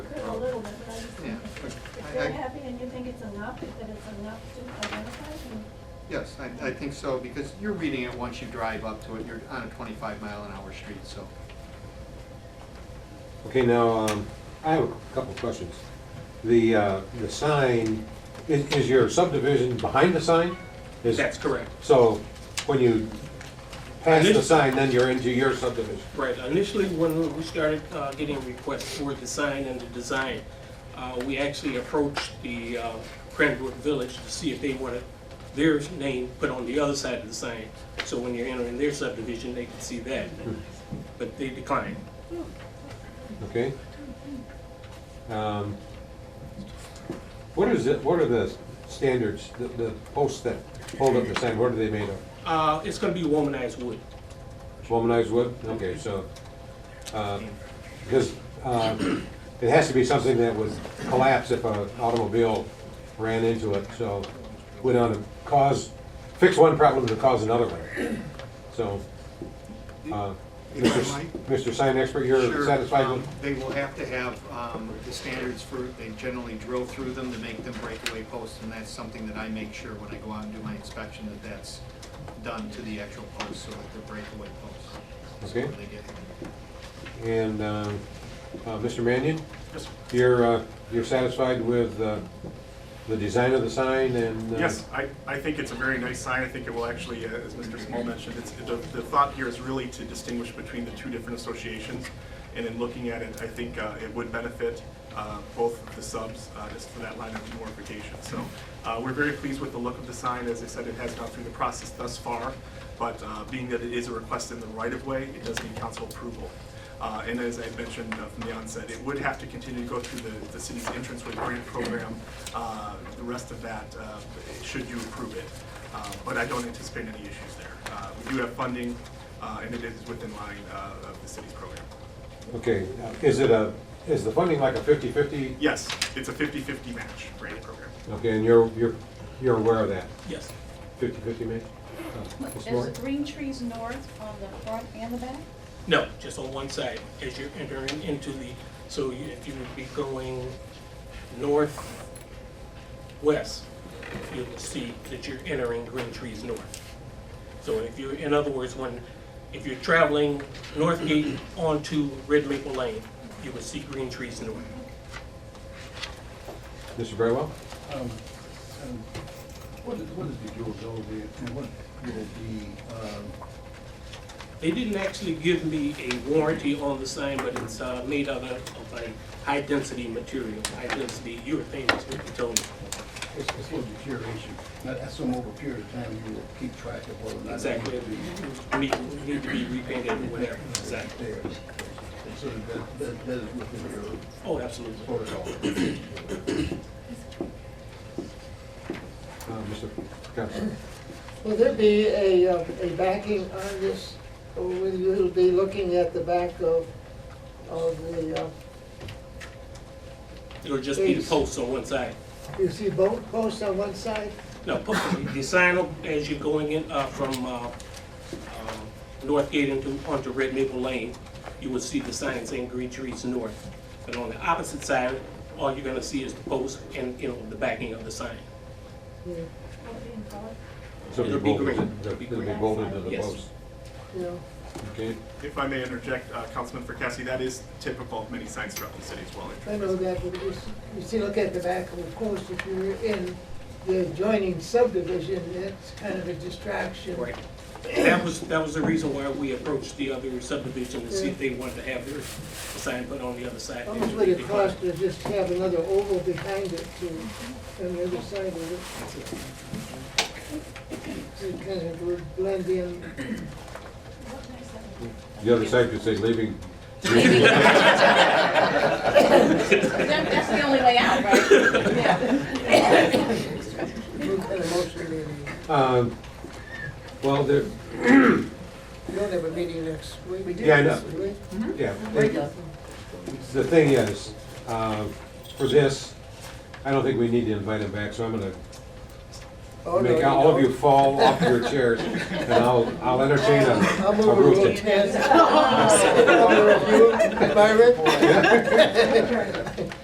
I- You're happy and you think it's enough, that it's enough to identify them? Yes, I, I think so, because you're reading it once you drive up to it, you're on a twenty-five mile an hour street, so. Okay, now, um, I have a couple questions. The, uh, the sign, is, is your subdivision behind the sign? Is- correct. So when you pass the Initially- sign, then you're into your subdivision? Right, initially, when we started uh, getting requests for the sign and the design, uh, we actually approached the uh, Cranbrook Village to see if they wanted their name put on the other side of the sign, so when you're entering their subdivision, they can see that, but they declined. Okay. Um, What is it, what are the standards, the, the posts that hold up the sign, what are they made of? Uh, It's gonna be womanized wood. Womanized wood? Okay, so, uh, because uh, it has to be something that would collapse if an automobile ran into it, so would on cause, fix one problem to cause another one. So, uh, If I Mr. might? Mr. Sign Expert, you're Sure, satisfied um, with? They will have to have, um, the standards for, they generally drill through them to make them breakaway posts, and that's something that I make sure when I go out and do my inspection, that that's done to the actual posts, so that they're breakaway posts. So Okay. when they get them. And um, uh, Mr. Mannion, Yes, you're, uh, you're satisfied with uh, the design of the sign and? uh, Yes, I, I think it's a very nice sign. I think it will actually, uh, as Mr. Small mentioned, it's, the, the thought here is really to distinguish between the two different associations. And in looking at it, I think uh, it would benefit uh, both of the subs uh, just for that line of mortification. So uh, we're very pleased with the look of the sign. As I said, it has gone through the process thus far. But uh, being that it is a request in the right of way, it does need council approval. Uh, And as I had mentioned uh, from the onset, it would have to continue to go through the, the city's entranceway grant program. Uh, The rest of that, uh, should you approve it. Uh, But I don't anticipate any issues there. Uh, We do have funding, uh, and it is within line uh, of the city's program. Okay, uh, is it a, is the funding like a 50/50? Yes, it's a 50-50 match grant program. Okay, and you're, you're, you're aware of that? Yes. Fifty-fifty, maybe? Uh, Ms. There's Moore? the green trees north on the front and the back? No, just on one side, as you're entering into the, so you- if you would be going northwest, you will see that you're entering Green Trees North. So if you're, in other words, when, if you're traveling North Gate onto Red Maple Lane, you will see Green Trees North. Mr. Brightwell? Um, um, What is, what is the durability and what will be, um, They didn't actually give me a warranty on the sign, but it's uh, made of a, of a high-density material, high-density urethane, is what they told me. it's, it's a little deterioration. I I assume over a period of time you will keep track of whether or not. Exactly, it will be need, need to be repainted or whatever, exactly. there. So that, that, that is within your Oh, absolutely. protocol. Uh, Mr. Cox? Will there be a, uh, a backing on this, or will you be looking at the back of, of the, uh, It'll just be the posts on one side. you see both posts on one side? No, po- the sign up as you're going in, uh, from, uh, um, North Gate into, onto Red Maple Lane, you will see the sign saying Green Trees North. But on the opposite side, all you're gonna see is the post and, you know, the backing of the sign. Will it be in color? So It'll be bolted green. to- It'll be It'll be green. bolted to the Yes. post. You know, Okay, If I may interject, uh, Councilman Fracassi, that is typical of many signs throughout the city as well. I know that, but you, s- you see, look at the back, of course, if you're in the adjoining subdivision, it's kind of a distraction. Right. That was, that was the reason why we approached the other subdivision to see if they wanted to have their sign put on the other side. How much would it cost to just have another oval behind it to, on the other side of it? To kind of would blend in. What makes that? the other side could say leaving, That- That's the only way out, right? Yeah. What kind of motion do you need? um, well, there, We don't have a meeting next week. We do. Yeah, I know. We yeah. Mm-hmm. The thing is, um, for this, I don't think we need to invite him back, so I'm gonna Oh, no, make all of you don't. fall off your chairs, and I'll, I'll entertain a, I'll move a rule rule. ten. I'll move you, Byron?